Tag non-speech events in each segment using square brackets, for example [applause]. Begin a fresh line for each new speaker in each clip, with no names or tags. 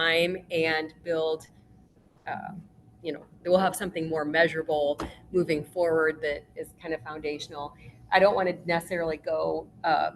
time and build, uh, you know, we'll have something more measurable moving forward that is kind of foundational. I don't want to necessarily go uh,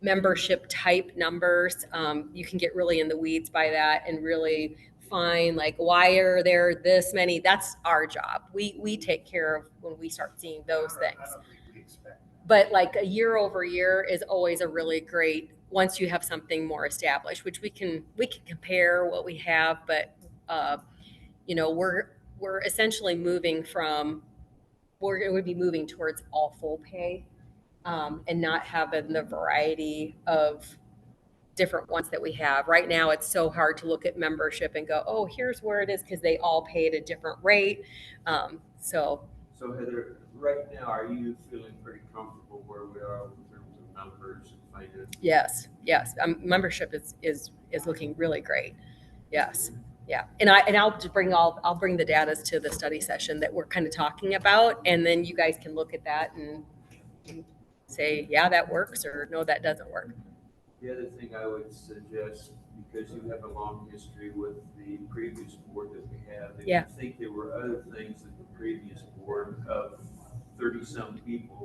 membership type numbers. Um, You can get really in the weeds by that and really find like, why are there this many? That's our job. We, we take care of when we start seeing those
I don't-
things
I don't think we expect that.
but like a year over year is always a really great once you have something more established which we can we can compare what we have but uh, you know we're we're essentially moving from we're going to be moving towards all full pay um, and not having the variety of different ones that we have right now it's so hard to look at membership and go oh here's where it is because they all pay at a different rate um, so
So Heather, right now, are you feeling pretty comfortable where we are in terms of numbers and finances?
Yes, yes. Um, membership is, is, is looking really great. Yes, yeah. And I, and I'll just bring all, I'll bring the datas to the study session that we're kind of talking about. And then you guys can look at that and and say, yeah, that works or no, that doesn't work.
The other thing I would suggest, because you have a long history with the previous board that we have, if
Yeah.
you think there were other things that the previous board of thirty-some people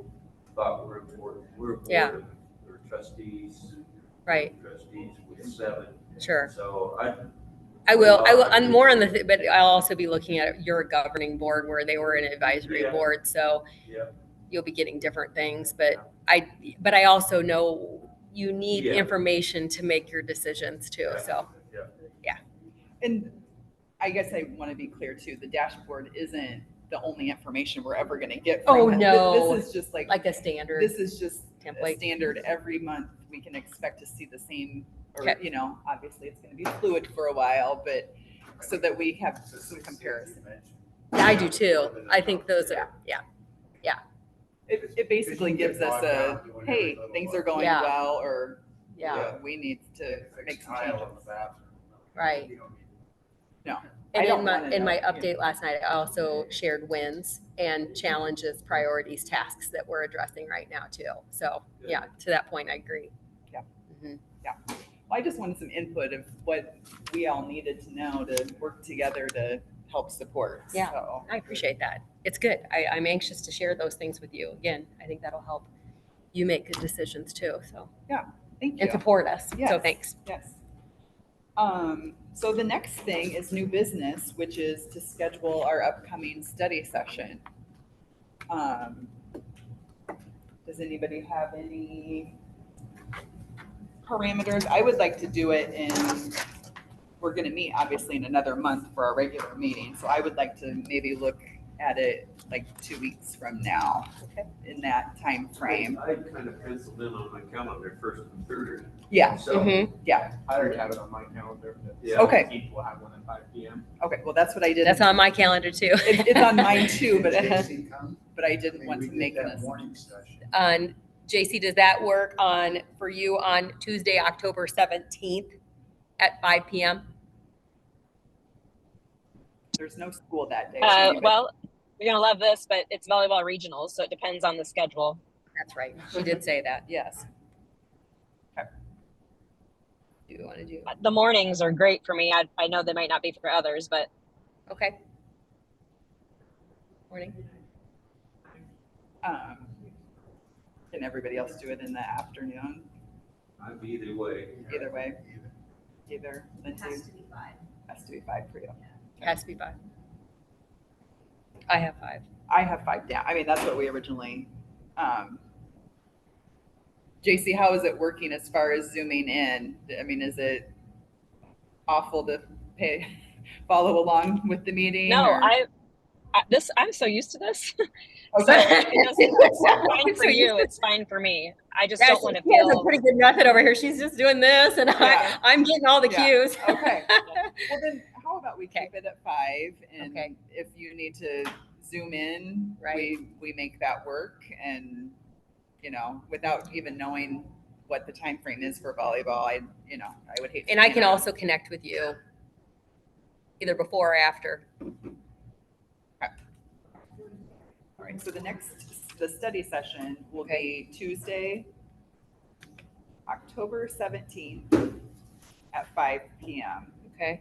thought were important, we're a
Yeah.
board of or trustees.
Right,
Trustees with seven,
sure.
so I.
I will, I will, I'm more on the, thi- but I'll also be looking at your governing board where they were an advisory
Yeah.
board. So
Yeah,
you'll be getting different things, but I, but I also know you need
Yeah.
information to make your decisions too,
Yeah.
so.
yeah.
And I guess I want to be clear too, the dashboard isn't the only information we're ever going to get from
Oh,
it. Th-
no.
This is just like,
like a standard
this is just a
template.
standard. Every month, we can expect to see the same, or,
Okay.
you know, obviously it's going to be fluid for a while, but so that we have
It's a
some
success
comparison.
you mentioned.
I do too. I think those are, yeah,
It, it basically
Because you
gives
get
us
bogged
a,
down doing every
hey,
little
things
one.
are going
Yeah.
well, or
yeah,
uh, we need to
If it's
make some
tile
changes.
in the bathroom,
right.
you don't need it.
And
I don't
in my,
wanna
in
know,
my
yeah.
update last night, I also shared wins and challenges, priorities, tasks that we're addressing right now too. So, yeah, to that point, I agree.
Yeah.
Mhm.
I just wanted some input of what we all needed to know to work together to help support.
Yeah.
So,
I appreciate that. It's good. I, I'm anxious to share those things with you. Again, I think that'll help you make good decisions too, so,
thank you.
and support us. So
Yes.
thanks.
Yes. Um, so the next thing is new business, which is to schedule our upcoming study session. Um, does anybody have any parameters? I would like to do it in, we're gonna meet obviously in another month for our regular meeting, so I would like to maybe look at it like two weeks from now.
Okay.
In that time frame.
I kind of penciled in on my calendar first and third.
Yeah,
So
Mhm.
I already have it on my calendar.
Yeah.
Okay.
We'll have one at five P M.
okay, well, that's what I did.
That's on my calendar too.
It- It's
[laughs]
on mine too, but.
Didn't
but I didn't want to make
that
this.
morning session.
on, JC, does that work on, for you on Tuesday, October 17th at 5 PM?
There's no school that day. so
Uh,
anybody-
well, you're gonna love this, but it's volleyball regionals, so it depends on the schedule.
That's right. She did say that.
Yes.
Do you want to do?
The mornings are great for me. I, I know they might not be for others, but
Okay. Morning.
Um, Can everybody else do it in the afternoon?
I'm either way.
Either way, either Lindsay has to be five for you.
Has to be five. I have [laughs] five.
I have five down. I mean, that's what we originally, um. JC, how is it working as far as zooming in? I mean, is it awful to pay, [laughs] follow along with the meeting?
no,
or-
I, I this I'm so used to this. so
[laughs] Okay.
[laughs] it doesn't- it's fine for you. It's fine for me. I just
Yeah,
don't
she-
want to
she has a
feel.
Pretty good method over here. She's just doing this and I,
Yeah.
I'm getting all the
Yeah.
cues. [laughs]
Okay. Well, then, how about we keep it at five?
Okay.
And if you need to zoom in,
Right.
we, we make that work and, you know, without even knowing what the time frame is for volleyball, I, you know, I would hate. to
And I
plan
can
around.
also connect with you either before or after.
All right, so the next, the study session will be Tuesday, October seventeenth at five PM.